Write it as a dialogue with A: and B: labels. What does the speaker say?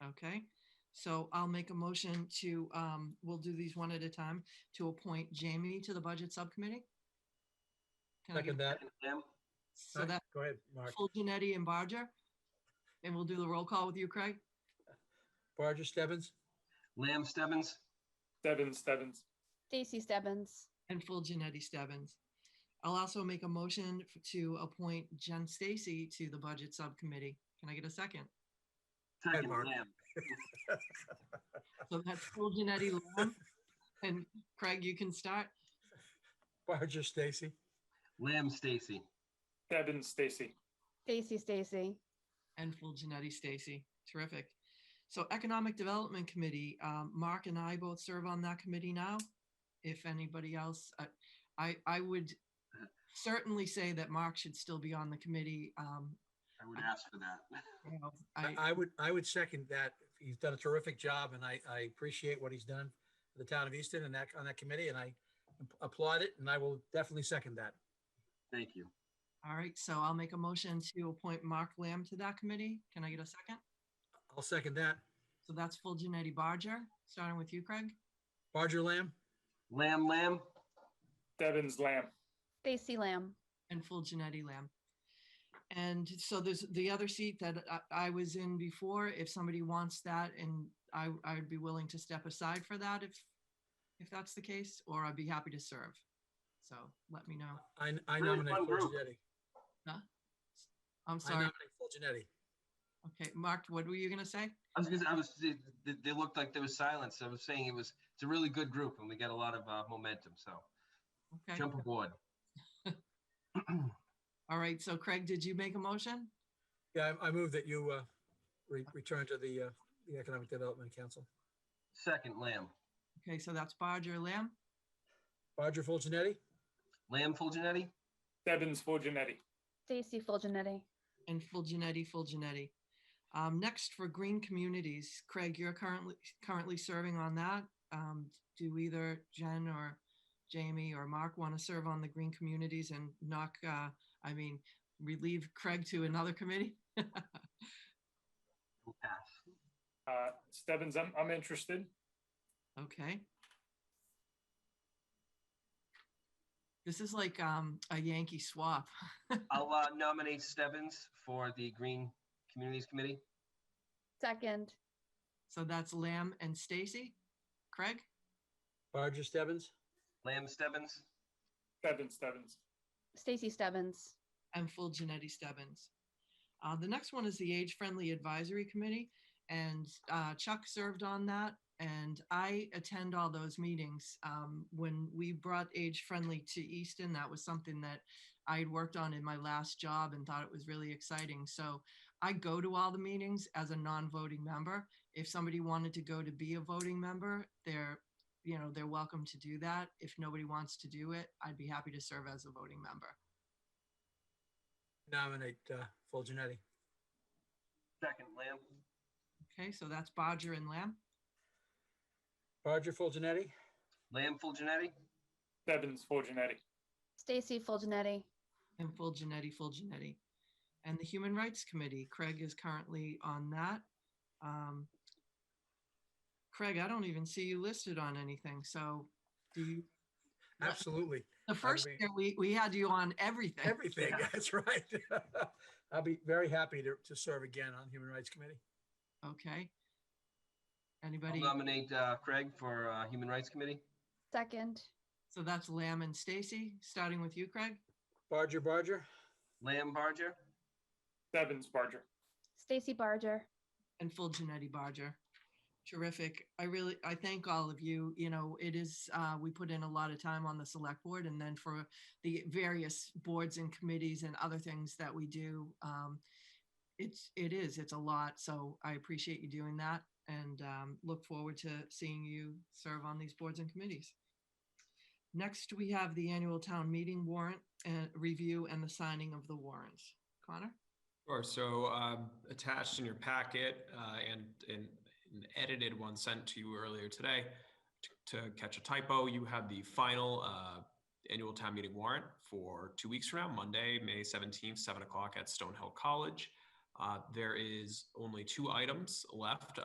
A: Okay, so I'll make a motion to, um, we'll do these one at a time, to appoint Jamie to the Budget Subcommittee. Can I get-
B: Second that.
C: Tim,
A: So that,
B: Go ahead, Mark.
A: full Janetti and Barger. And we'll do the roll call with you, Craig.
B: Barger Stebbins,
C: Lamb Stebbins,
D: Stebbins, Stebbins,
E: Stacy Stebbins,
A: And full Janetti Stebbins. I'll also make a motion f- to appoint Jen Stacy to the Budget Subcommittee. Can I get a second?
C: second
B: Mark.
C: Lamb.
A: So that's full Janetti. Lamb. And Craig, you can start.
B: Barger Stacy,
C: Lamb Stacy,
D: Stebbins, Stacy,
E: Stacy Stacy,
A: and full Janetti Stacy. Terrific. So Economic Development Committee, um, Mark and I both serve on that committee now. If anybody else, uh, I, I would certainly say that Mark should still be on the committee. Um,
C: I would ask for that.
A: you know,
B: I,
A: I,
B: I would, I would second that. He's done a terrific job and I, I appreciate what he's done for the town of Easton and that, on that committee and I applaud it and I will definitely second that.
C: Thank you.
A: all right, so I'll make a motion to appoint Mark Lamb to that committee. Can I get a second?
B: I'll second that.
A: So that's full Janetti Barger, starting with you, Craig,
B: Barger Lamb,
C: Lamb, Lamb,
D: Stebbins, Lamb,
E: Stacy Lamb,
A: and full Janetti Lamb. And so there's the other seat that I, I was in before, if somebody wants that, and I, I'd be willing to step aside for that if, if that's the case, or I'd be happy to serve. So let me know.
B: I, I
C: Really
B: nominate
C: fun
B: Phil
C: group.
B: Janetti.
A: I'm
B: I
A: sorry.
B: nominate Phil Janetti.
A: Okay, Mark, what were you gonna say?
C: I was gonna, I was, they, they- they looked like there was silence. I was saying it was, it's a really good group and we got a lot of uh, momentum, so
A: Okay,
C: jump aboard.
A: all right. So Craig, did you make a motion?
B: Yeah, I, I move that you, uh, re- return to the, uh, the Economic Development Council.
C: Second Lamb,
A: Okay, so that's Barger Lamb
B: Barger Phil Janetti,
C: Lamb Fulgenetti,
D: Stebbins, Fulgenetti,
E: Stacy Fulgenetti,
A: and full Janetti, full Janetti. Um, next for Green Communities, Craig, you're currently, currently serving on that. Um, do either Jen or Jamie or Mark want to serve on the Green Communities and knock, uh, I mean, relieve Craig to another committee?
C: will pass.
D: uh, Stebbins, I'm, I'm interested.
A: Okay. This is like, um, a Yankee swap.
C: I'll uh, nominate Stebbins for the Green Communities Committee.
E: second,
A: So that's Lamb and Stacy. Craig?
B: Barger Stebbins,
C: Lamb Stebbins,
D: Stebbins, Stebbins,
E: Stacy Stebbins,
A: and full Janetti Stebbins. Uh, the next one is the Age Friendly Advisory Committee, and uh, Chuck served on that. And I attend all those meetings. Um, when we brought Age Friendly to Easton, that was something that I had worked on in my last job and thought it was really exciting. So I go to all the meetings as a non-voting member. If somebody wanted to go to be a voting member, they're, you know, they're welcome to do that. If nobody wants to do it, I'd be happy to serve as a voting member.
B: nominate, uh, Phil Janetti.
C: second Lamb,
A: Okay, so that's Bodger and Lamb.
B: Barger Phil Janetti,
C: Lamb Fulgenetti,
D: Stebbins, Fulgenetti,
E: Stacy Fulgenetti,
A: And full Janetti, full Janetti. And the Human Rights Committee, Craig is currently on that. Um, Craig, I don't even see you listed on anything, so do you,
B: absolutely.
A: the first
B: be-
A: year, we, we had you on everything.
B: Everything, that's right. I'll be very happy to, to serve again on Human Rights Committee.
A: Okay.
C: I'll
A: Anybody?
C: nominate uh, Craig for uh, Human Rights Committee.
E: second,
A: So that's Lamb and Stacy, starting with you, Craig,
B: Barger, Barger,
C: Lamb Barger,
D: Stebbins, Barger,
E: Stacy Barger,
A: and full Janetti Bodger. Terrific. I really, I thank all of you. You know, it is, uh, we put in a lot of time on the select board and then for the various boards and committees and other things that we do. Um, it's, it is, it's a lot. So I appreciate you doing that and, um, look forward to seeing you serve on these boards and committees. Next, we have the annual town meeting warrant and review and the signing of the warrants. Connor?
F: Sure. So um, attached in your packet uh, and and an edited one sent to you earlier today to, to catch a typo, you have the final uh, annual town meeting warrant for two weeks from now, Monday, May 17th, 7 o'clock at Stonehill College. Uh, there is only two items left